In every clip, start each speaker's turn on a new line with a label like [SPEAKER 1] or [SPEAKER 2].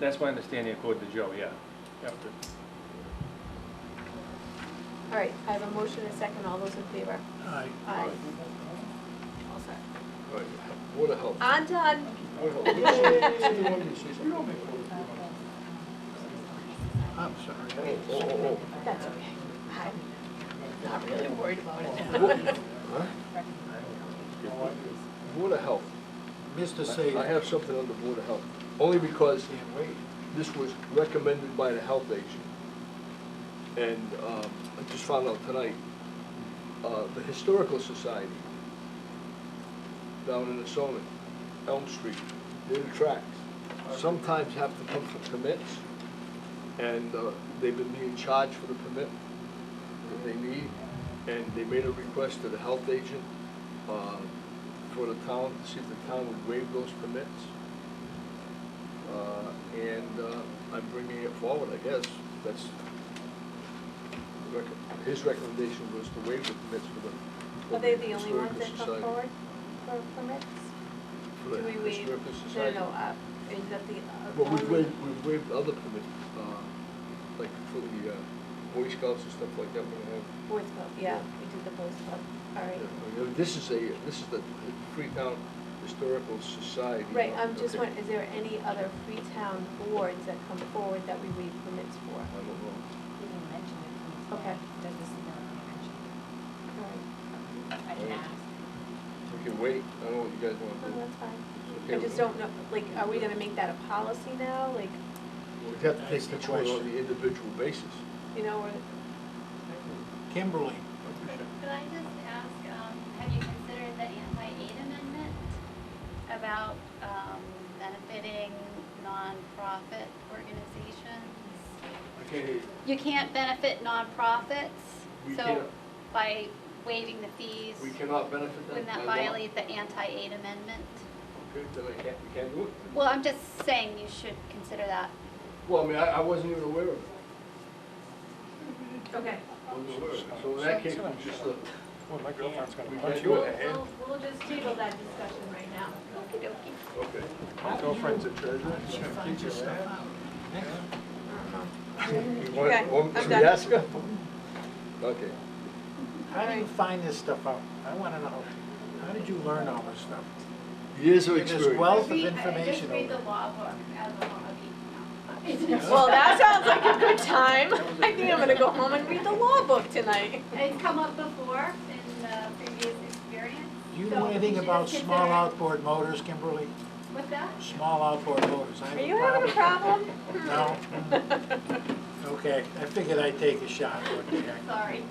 [SPEAKER 1] that's my understanding according to Joe, yeah. Yep.
[SPEAKER 2] All right, I have a motion and a second, all those in favor?
[SPEAKER 3] Aye.
[SPEAKER 2] Aye. All set.
[SPEAKER 4] Right. Board of Health.
[SPEAKER 2] On to, un-
[SPEAKER 4] Board of Health. She's the one who sees it.
[SPEAKER 3] I'm sorry.
[SPEAKER 4] Oh, oh,
[SPEAKER 2] that's okay. I'm not really worried about
[SPEAKER 4] oh.
[SPEAKER 2] it.
[SPEAKER 4] Bo- huh? Board of Health.
[SPEAKER 3] Mr.
[SPEAKER 4] I- I
[SPEAKER 3] Sager,
[SPEAKER 4] have something on the Board of Health, only because this was recommended by the health agent. And um, I just found out tonight, uh, the Historical Society down in the Assomin, Elm Street, their tracks sometimes have to come for permits. And uh, they've been being charged for the permit that they need. And they made a request to the health agent uh, for the town, to see if the town would waive those permits. Uh, And uh, I'm bringing it forward, I guess. That's, rec- his recommendation was to waive the permits for the.
[SPEAKER 2] Are they the only
[SPEAKER 4] Historical
[SPEAKER 2] ones that come
[SPEAKER 4] Society-
[SPEAKER 2] forward for permits? Do
[SPEAKER 4] for the
[SPEAKER 2] we waive?
[SPEAKER 4] Historical
[SPEAKER 2] No,
[SPEAKER 4] Society.
[SPEAKER 2] no, uh, is that the? uh,
[SPEAKER 4] But we've
[SPEAKER 2] only-
[SPEAKER 4] waived, we've waived other permits, uh, like for the uh, Boy Scouts and stuff like that, we have.
[SPEAKER 2] Boys Club, yeah, we did the Boys Club, all right.
[SPEAKER 4] Yeah, This is a, this is the Freetown Historical Society.
[SPEAKER 2] Right, I'm just
[SPEAKER 4] Okay.
[SPEAKER 2] wondering, is there any other Freetown boards that come forward that we waive permits for?
[SPEAKER 4] I don't know.
[SPEAKER 5] He didn't mention it.
[SPEAKER 2] Okay.
[SPEAKER 5] Does this not mention
[SPEAKER 2] All right,
[SPEAKER 5] it? I didn't ask.
[SPEAKER 4] We can wait, I don't know what you guys want to do.
[SPEAKER 2] no, that's fine.
[SPEAKER 4] It's okay
[SPEAKER 2] I
[SPEAKER 4] with
[SPEAKER 2] just
[SPEAKER 4] me.
[SPEAKER 2] don't know, like, are we gonna make that a policy now, like,
[SPEAKER 4] We'd have to take
[SPEAKER 3] That's the
[SPEAKER 4] each one on
[SPEAKER 3] question.
[SPEAKER 4] the individual basis.
[SPEAKER 2] you know, we're,
[SPEAKER 3] Kimberly,
[SPEAKER 6] Could I just ask, um, have you considered the anti-aid amendment about, um, benefiting nonprofit organizations?
[SPEAKER 4] Okay.
[SPEAKER 6] You can't benefit nonprofits,
[SPEAKER 4] We
[SPEAKER 6] so
[SPEAKER 4] can't.
[SPEAKER 6] by waiving the fees,
[SPEAKER 4] We cannot benefit them.
[SPEAKER 6] wouldn't
[SPEAKER 4] by
[SPEAKER 6] that
[SPEAKER 4] law.
[SPEAKER 6] violate the anti-aid amendment?
[SPEAKER 4] Okay, then I can't, we can't do it.
[SPEAKER 6] Well, I'm just saying you should consider that.
[SPEAKER 4] Well, I mean, I, I wasn't even aware of it.
[SPEAKER 2] okay.
[SPEAKER 4] Wasn't aware of it. So in that case, we just, uh,
[SPEAKER 3] well, my girlfriend's gonna
[SPEAKER 4] we
[SPEAKER 3] punch
[SPEAKER 4] can't do
[SPEAKER 3] you.
[SPEAKER 4] it.
[SPEAKER 2] We'll, we'll just table that discussion right now.
[SPEAKER 6] Okey dokey.
[SPEAKER 4] Okay.
[SPEAKER 3] My girlfriend's a treasurer. She'll get your stuff out.
[SPEAKER 2] Uh-huh.
[SPEAKER 4] You
[SPEAKER 2] Okay,
[SPEAKER 4] want, want me
[SPEAKER 2] I'm
[SPEAKER 4] to
[SPEAKER 2] done.
[SPEAKER 4] ask her? Okay.
[SPEAKER 3] How do you find this stuff out? I wanna know. How did you learn all this stuff?
[SPEAKER 4] Years of
[SPEAKER 3] It is
[SPEAKER 4] experience.
[SPEAKER 3] well- Wealth of I read- I just information read over the
[SPEAKER 6] law book as a
[SPEAKER 2] Well, that sounds like a good time. I think I'm gonna go home and read the law book tonight.
[SPEAKER 6] It's come up before in uh, previous experience.
[SPEAKER 3] Do you
[SPEAKER 6] so
[SPEAKER 3] know
[SPEAKER 6] we
[SPEAKER 3] anything
[SPEAKER 6] should
[SPEAKER 3] about
[SPEAKER 6] just
[SPEAKER 3] small
[SPEAKER 6] consider-
[SPEAKER 3] outboard motors, Kimberly?
[SPEAKER 6] What's that?
[SPEAKER 3] Small outboard motors, I have
[SPEAKER 2] Are
[SPEAKER 3] a
[SPEAKER 2] you having a problem?
[SPEAKER 3] No? Okay, I figured I'd take a shot, what the heck.
[SPEAKER 6] Sorry.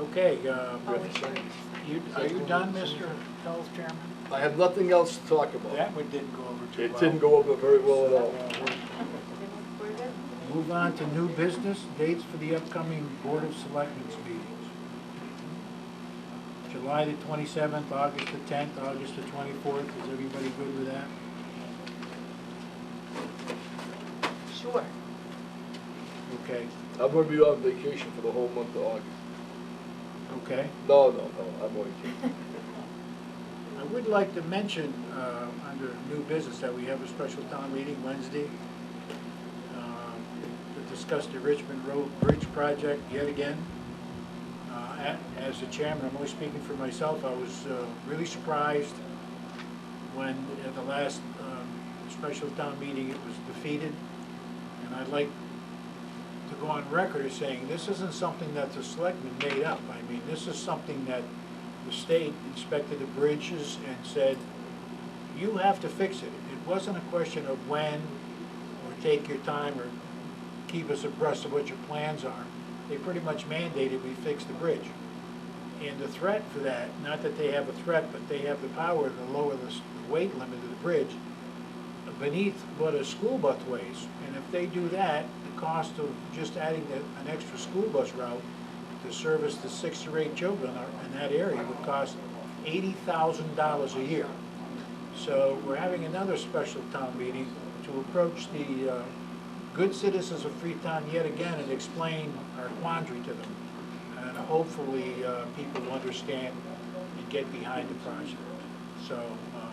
[SPEAKER 3] Okay, uh,
[SPEAKER 2] Oh, we should.
[SPEAKER 3] you, are you done, Mr. Health Chairman?
[SPEAKER 4] I have nothing else to talk about.
[SPEAKER 3] That one didn't go over too well. Uh,
[SPEAKER 4] It didn't go over very well at all.
[SPEAKER 2] We're good?
[SPEAKER 3] Move on to new business, dates for the upcoming Board of Selectmen's meetings. July the twenty-seventh, August the tenth, August the twenty-fourth, is everybody good with that?
[SPEAKER 2] Sure.
[SPEAKER 3] Okay,
[SPEAKER 4] I'm gonna be on vacation for the whole month of August.
[SPEAKER 3] okay.
[SPEAKER 4] No, no, no, I'm only kidding.
[SPEAKER 3] I would like to mention, uh, under new business, that we have a special town meeting Wednesday um, to discuss the Richmond Road Bridge project yet again. Uh, a- As the chairman, I'm only speaking for myself, I was uh, really surprised when at the last um, special town meeting, it was defeated. And I'd like to go on record as saying, this isn't something that the selectmen made up. I mean, this is something that the state inspected the bridges and said, you have to fix it. It wasn't a question of when, or take your time, or keep us abreast of what your plans are. They pretty much mandated we fix the bridge. And the threat for that, not that they have a threat, but they have the power to lower the s- the weight limit of the bridge beneath what are school busways, And if they do that, the cost of just adding a- an extra school bus route to service the six or eight children are- in that area would cost eighty thousand dollars a year. So we're having another special town meeting to approach the uh, good citizens of Freetown yet again and explain our quandary to them. And hopefully, uh, people will understand and get behind the project. So uh,